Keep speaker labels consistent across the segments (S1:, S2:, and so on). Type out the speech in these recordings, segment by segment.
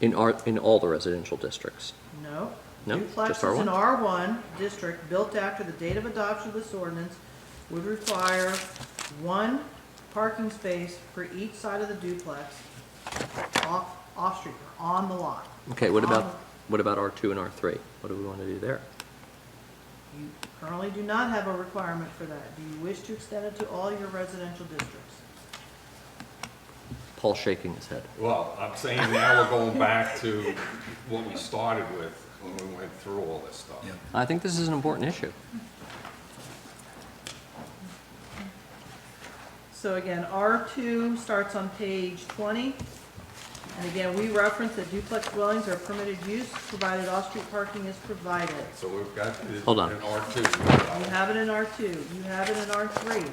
S1: In our, in all the residential districts.
S2: No.
S1: No, just
S2: Duplexes in R1 district built after the date of adoption of this ordinance would require one parking space for each side of the duplex off, off-street, or on the lot.
S1: Okay, what
S2: On-
S1: about, what about R two and R three? What do we want to do there?
S2: You currently do not have a requirement for that. Do you wish to extend it to all your residential districts?
S1: Paul's shaking his head.
S3: Well, I'm saying now we're going back to what we started with when we went through all this stuff.
S4: Yeah.
S1: I think this is an important issue.
S2: So again, R2 starts on page 20. And again, we reference that duplex dwellings are permitted use, provided off-street parking is provided.
S3: So we've got it
S1: Hold on.
S3: in R2.
S2: You have it in R2, you have it in R3.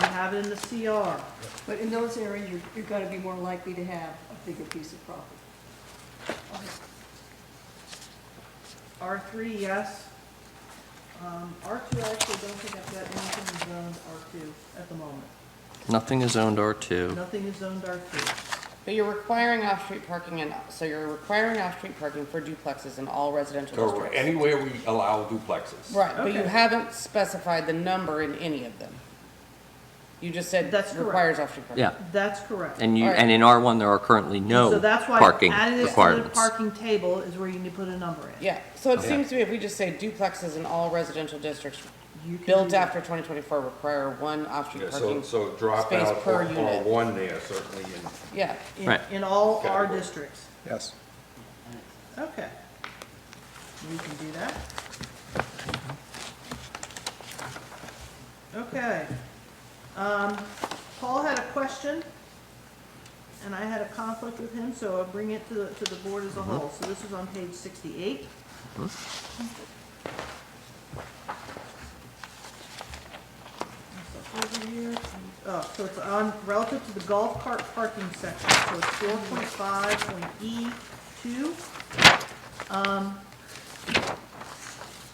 S2: You have it in the CR.
S5: But in those areas, you're, you're gonna be more likely to have a bigger piece of property.
S2: R3, yes. Um, R2, I actually don't think I've got anything zoned R2 at the moment.
S1: Nothing is zoned R two.
S2: Nothing is zoned R2.
S6: But you're requiring off-street parking in, so you're requiring off-street parking for duplexes in all residential
S3: Or
S6: districts.
S3: anywhere we allow duplexes.
S6: Right, but you
S2: Okay.
S6: haven't specified the number in any of them. You just said
S2: That's correct.
S6: requires off-street parking.
S1: Yeah,
S2: That's correct.
S1: and you,
S6: All right.
S1: and in R one, there are currently no
S2: So that's why
S1: parking
S2: adding this to the
S1: requirements.
S2: parking table is where you need to put a number in.
S6: Yeah, so it seems to me if we just say duplexes in all residential districts
S2: You can do
S6: built
S2: that.
S6: after twenty twenty-four require one off-street
S3: Yeah, so,
S6: parking.
S3: so drop
S6: Space
S3: out
S6: per
S3: R-
S6: unit.
S3: R1 there certainly and
S6: Yeah,
S2: in-
S1: Right.
S2: In all our
S3: Category.
S2: districts.
S4: Yes.
S2: Okay. We can do that. Okay. Um, Paul had a question, and I had a conflict with him, so I'll bring it to the, to the board as a whole. So this is on page sixty-eight. That's over here. Oh, so it's on, relative to the golf cart parking section, so it's four point five point E two.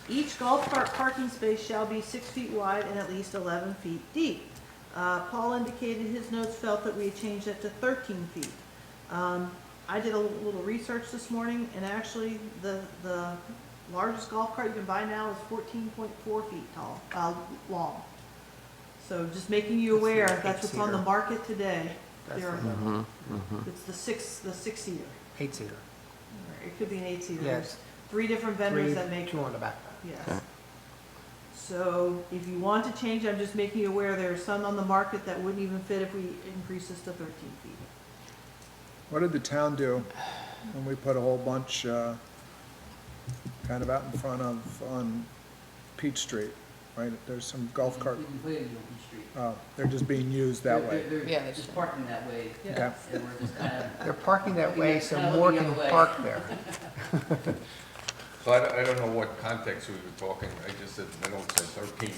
S2: Each golf cart parking space shall be six feet wide and at least eleven feet deep. Uh, Paul indicated his notes felt that we had changed that to thirteen feet. Um, I did a little research this morning, and actually, the, the largest golf cart you can buy now is fourteen point four feet tall, uh, long. So just making you aware, that's what's on the market today. There are, Mm-hmm, it's the six, the six-seater.
S7: eight-seater.
S2: or It could be an eight-seater.
S7: Yes.
S2: Three different
S7: Three,
S2: vendors that make
S7: two on the back.
S2: Yes. So if you want to change, I'm just making you aware, there are some on the market that wouldn't even fit if we increase this to thirteen feet.
S4: What did the town do when we put a whole bunch, uh, kind of out in front of, on Peach Street? Right, there's some golf cart,
S8: We can put it in Open Street.
S4: oh, they're just being used that
S8: They're-
S4: way.
S8: They're,
S6: Yeah,
S8: they're
S6: that's
S8: just parking that way.
S4: Yeah.
S8: And we're just kind of.
S7: They're parking that
S8: Looking
S7: way
S8: at-
S7: so
S8: kinda
S7: more
S8: looking
S7: can
S8: the other way.
S7: park there.
S3: So I, don't- I don't know what context we were talking, I just said, I don't say 13.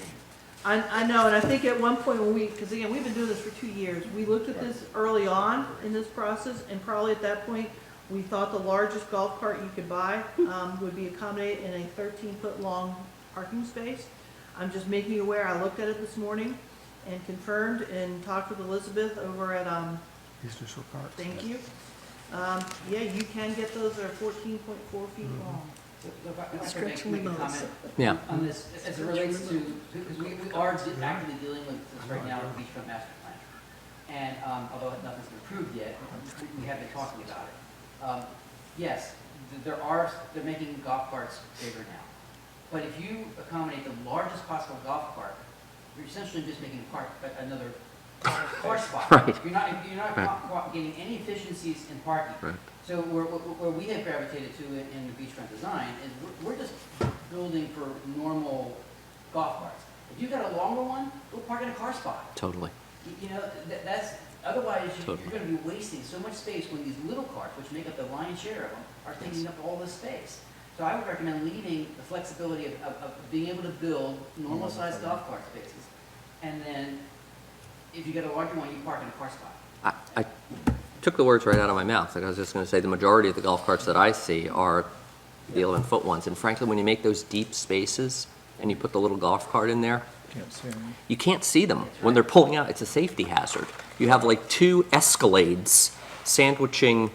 S2: I, I know, and I think at one point when we, because again, we've been doing this for two years, we looked at this early on in this process, and probably at that point, we thought the largest golf cart you could buy, um, would be accommodated in a thirteen-foot-long parking space. I'm just making you aware, I looked at it this morning and confirmed and talked with Elizabeth over at, um,
S7: Easter Shore Park.
S2: Thank you. Um, yeah, you can get those, they're fourteen point four feet long.
S8: If I- if I could make- make a comment
S1: Yeah,
S8: On this, as it relates to, because we, we are de- actively dealing with this right now with the beachfront master plan. And, um, although nothing's been approved yet, we- we have been talking about it. Um, yes, th- there are, they're making golf carts bigger now. But if you accommodate the largest possible golf cart, you're essentially just making a park, but another car spot.
S1: Right.
S8: You're not, you're not
S1: Right.
S8: co- co- getting any efficiencies in parking.
S1: Right.
S8: So where, where where we have gravitated to it in the beachfront design is we're, we're just building for normal golf carts. If you've got a longer one, go park in a car spot.
S1: totally.
S8: You- You know, that, that's, otherwise you-
S1: Totally.
S8: you're gonna be wasting so much space when these little carts, which make up the lion's share of them, are taking up all this space. So I would recommend leaving the flexibility of, of, of being able to build normal sized golf cart spaces. And then if you get a larger one, you park in a car spot.
S1: I, I took the words right out of my mouth, like I was just gonna say, the majority of the golf carts that I see are the eleven-foot ones, and frankly, when you make those deep spaces and you put the little golf cart in there,
S4: Can't see them.
S1: you can't see them when they're pulling out. It's a safety hazard. You have like two Escalades sandwiching